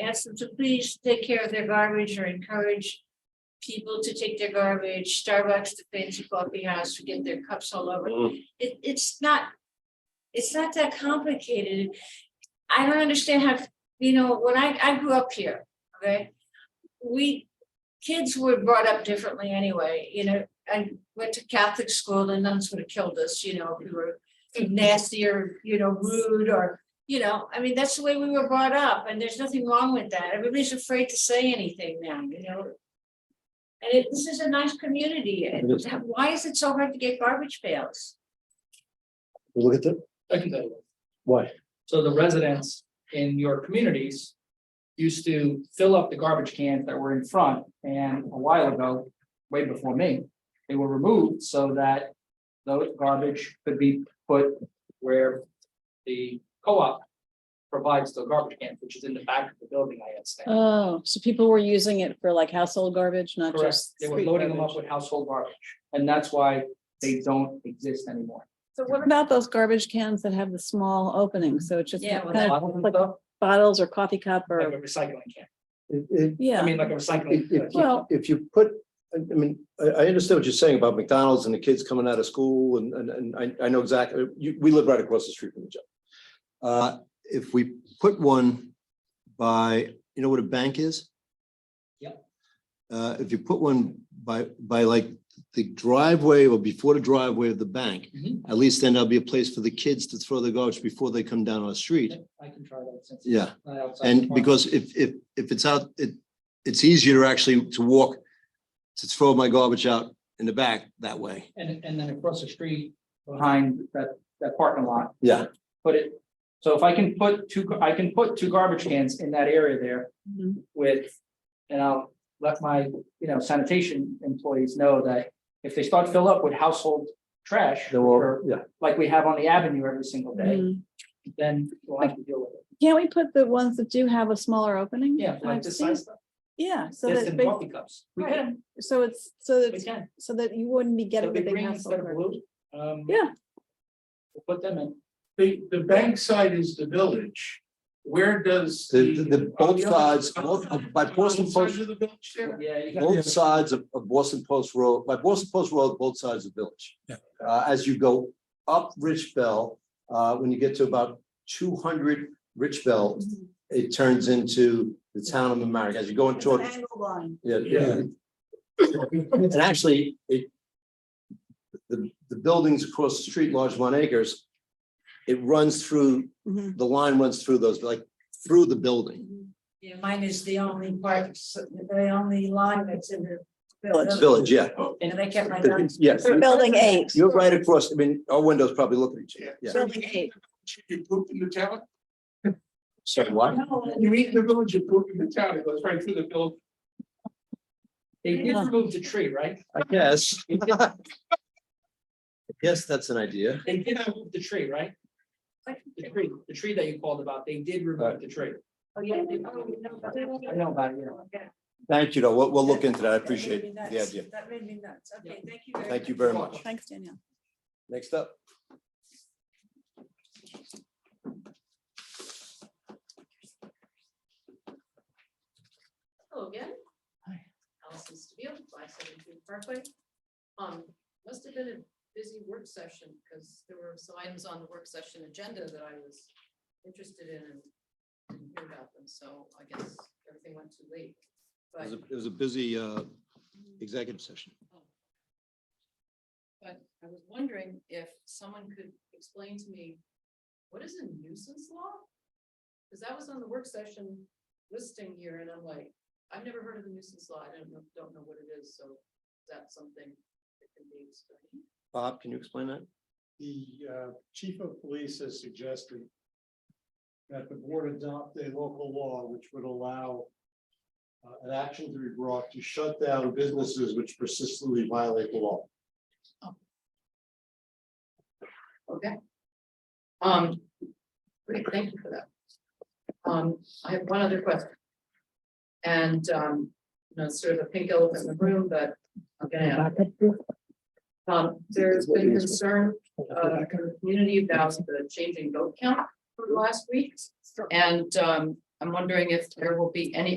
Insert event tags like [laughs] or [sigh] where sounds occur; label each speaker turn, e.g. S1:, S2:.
S1: ask them to please take care of their garbage or encourage people to take their garbage, Starbucks, the fancy coffee house, to get their cups all over.
S2: Mm.
S1: It, it's not, it's not that complicated. I don't understand how, you know, when I, I grew up here, okay? We, kids were brought up differently anyway, you know, I went to Catholic school, the nuns would have killed us, you know, if we were nasty or, you know, rude or, you know, I mean, that's the way we were brought up, and there's nothing wrong with that. Everybody's afraid to say anything now, you know? And it, this is a nice community, and
S2: It is.
S1: why is it so hard to get garbage pails?
S2: We Look at the,
S3: I can tell you.
S2: why?
S3: So the residents in your communities used to fill up the garbage cans that were in front and a while ago, way before me, they were removed so that those garbage could be put where the co-op provides the garbage cans, which is in the back of the building I had stand.
S4: Oh, so people were using it for like household garbage, not
S3: Correct.
S4: just.
S3: They were
S4: street
S3: loading them up
S4: garbage.
S3: with household garbage, and that's why they don't exist anymore.
S4: So what about those garbage cans that have the small openings? So it's just
S1: Yeah, well,
S4: kind of
S3: Bottom
S4: like-
S3: stuff,
S4: bottles or coffee cup
S3: Like
S4: or,
S3: a recycling can,
S2: It- it-
S3: I
S4: yeah,
S3: mean, like a recycling.
S2: If, if,
S4: Well-
S2: if you put, I, I mean, I, I understand what you're saying about McDonald's and the kids coming out of school and, and, and I, I know exactly, you, we live right across the street from each other. Uh, if we put one by, you know what a bank is?
S3: Yep.
S2: Uh, if you put one by, by like the driveway or before the driveway of the bank,
S3: Mhm.
S2: at least then there'll be a place for the kids to throw their garbage before they come down our street.
S3: I can try that since.
S2: Yeah.
S3: not outside the
S2: And
S3: farm.
S2: because if, if, if it's out, it, it's easier to actually to walk, to throw my garbage out in the back that way.
S3: And, and then across the street behind that, that parking lot,
S2: Yeah.
S3: put it, so if I can put two, gar- I can put two garbage cans in that area there
S4: Mhm.
S3: with, and I'll let my, you know, sanitation employees know that if they start to fill up with household trash, or
S2: yeah.
S3: like we have on the avenue every single day,
S4: Mhm.
S3: then we'll have to deal with it.
S4: can't we put the ones that do have a smaller opening?
S3: Yeah, like
S4: I've
S3: this
S4: seen-
S3: size stuff,
S4: Yeah, so
S3: this
S4: that,
S3: in
S4: they-
S3: coffee cups. We
S4: Right.
S3: can,
S4: so it's, so
S3: we
S4: that,
S3: can.
S4: so that you wouldn't be
S3: They'll
S4: getting the
S3: be
S4: big
S3: green instead
S4: household
S3: of
S4: garbage.
S3: blue. Um,
S4: Yeah.
S3: we'll Put them in.
S5: The, the bank side is the village. Where does?
S2: The- the- the both
S5: on other-
S2: sides,
S5: on
S2: both-
S5: the- on
S2: by
S5: the
S2: Boston
S5: other
S2: Post-
S5: side of the village there?
S3: Yeah, you got-
S2: Both sides of, of Boston Post Road, by Boston Post Road, both sides of Village.
S5: Yeah.
S2: Uh, as you go up Rich Bell, uh, when you get to about two hundred Rich Bell,
S5: Mm-hmm.
S2: it turns into the town of Mamaroneck. As you go into George, yeah, yeah, And actually, it. The, the buildings across the street, Largemont Acres. It runs through,
S4: Mhm.
S2: the line runs through those, like through the building.
S1: Yeah, mine is the only part, the only line that's in the
S2: Oh, It's
S1: village,
S2: village, yeah.
S1: and I kept my.
S2: It's- Yes,
S4: Building eight,
S2: you're right across. I mean, our windows probably look at each other. Yeah.
S4: building eight.
S5: Should You poop in the town?
S2: Sorry, what?
S5: You eat in the village, you poop in the town. It goes right through the village.
S3: They did
S4: Yeah.
S3: remove the tree, right?
S2: I guess. [laughs] Yes, that's an idea.
S3: They did remove the tree, right? The tree, the tree that you called about, they did remove the tree.
S1: Oh,
S3: I know about it, yeah.
S2: Thank you, though. We'll, we'll look into that. I appreciate the idea.
S1: That made me nuts, okay, thank you very much.
S2: Thank you very much.
S4: Thanks, Danielle.
S2: Next up.
S6: Hello again.
S3: Hi.
S6: Allison Stabile, five seventeen Parkway. Um, must have been a busy work session because there were some items on the work session agenda that I was interested in and didn't hear about them, so I guess everything went too
S2: It
S6: late. But, Oh.
S2: was a- it was a busy uh, executive session.
S6: but I was wondering if someone could explain to me, what is a nuisance law? Because that was on the work session listing here and I'm like, I've never heard of the nuisance law. I don't know, don't know what it is, so is that something that can be explained?
S2: Bob, can you explain that?
S7: the uh, chief of police has suggested that the board adopt a local law which would allow uh, an action to be brought to shut down businesses which persistently violate the law.
S6: Okay. Um, great, thank you for that. Um, I have one other question. And, um, you know, it's sort of a pink elephant in the room, but I'm gonna ask. it. Um, there's been concern, uh, in the community about the changing vote count for last week. And, um, I'm wondering if there will be any